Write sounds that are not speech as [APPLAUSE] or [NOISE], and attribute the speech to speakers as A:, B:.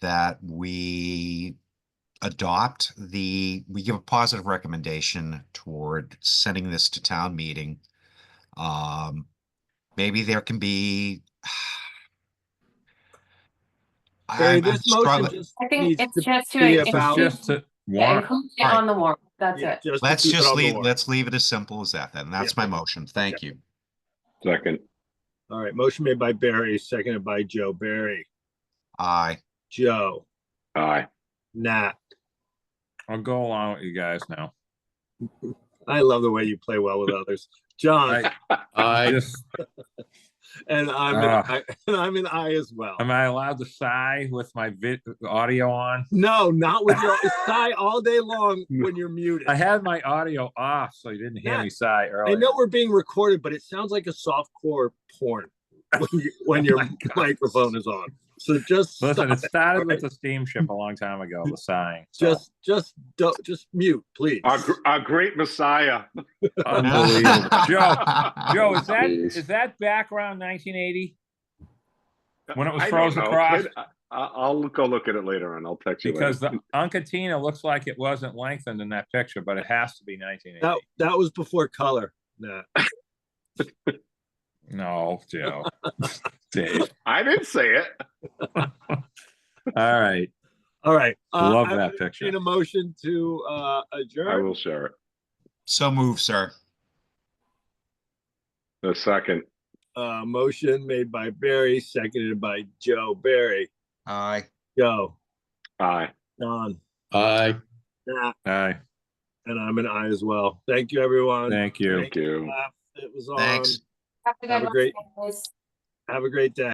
A: that we adopt the, we give a positive recommendation toward sending this to town meeting. Um, maybe there can be. [SIGHS]
B: Barry,
A: I'm- I'm
B: this motion
A: struggling-
B: just.
C: I think
B: needs
C: it's
B: to
C: just
B: be
C: to
B: about-
C: include,
D: Just to
C: yeah,
D: warrant,
C: include it on the warrant, that's
B: yeah,
C: it.
B: to
A: Let's
B: keep it
A: just
B: on the
A: leave,
B: warrant.
A: let's leave it as simple as that then. That's
B: Yeah.
A: my motion. Thank you.
E: Second,
B: All right, motion made by Barry, seconded by Joe. Barry,
A: Aye.
B: Joe,
E: aye.
B: Nat.
D: I'll go along with you guys now.
B: I love the way you play well with others. John,
D: I, I
F: I,
D: just,
B: and I'm, an
D: Ah.
B: I- [LAUGHS] and I'm an I as well.
D: am I allowed to sigh with my vid, audio on?
B: No, not with your, sigh all day long when you're muted.
D: I had my audio off, so you didn't hear me sigh
B: I
D: earlier.
B: know we're being recorded, but it sounds like a soft core porn when, you, when your
D: my God.
B: microphone is on. So just stop
D: Listen, it
B: it.
D: started
B: right?
D: with the steamship a long time ago, the sighing. so-
B: [LAUGHS] just just don't just mute, please.
E: Our, gr- our great messiah.
B: [LAUGHS]
D: Unbelievable.
A: [LAUGHS]
D: Joe, Joe, is that,
E: Jeez.
D: is that background nineteen eighty? When it was
E: I don't
D: frozen
E: know.
D: across?
E: It- I, I'll go look at it later and I'll text you
D: Because
E: later.
D: the Uncatina looks like it wasn't lengthened in that picture, but it has to be nineteen
B: That
D: eighty.
B: that was before color. Nah.
D: No,
B: [LAUGHS]
D: Joe. Dave.
E: I didn't say it.
D: All right.
B: All right. Uh,
D: Love
B: I
D: that
B: would
D: picture.
B: entertain a motion to uh, adjourn.
E: I will share it.
A: So move, sir.
E: The second,
B: Uh, motion made by Barry, seconded by Joe. Barry,
A: Aye.
B: Joe,
E: aye.
B: Don,
F: I.
B: Nat,
D: All right.
B: and I'm an I as well. Thank you, everyone.
D: Thank you.
E: Thank you.
B: Uh, It was on.
A: Thanks.
C: Have a
B: Have a
C: good one,
B: great-
C: guys.
B: Have a great day.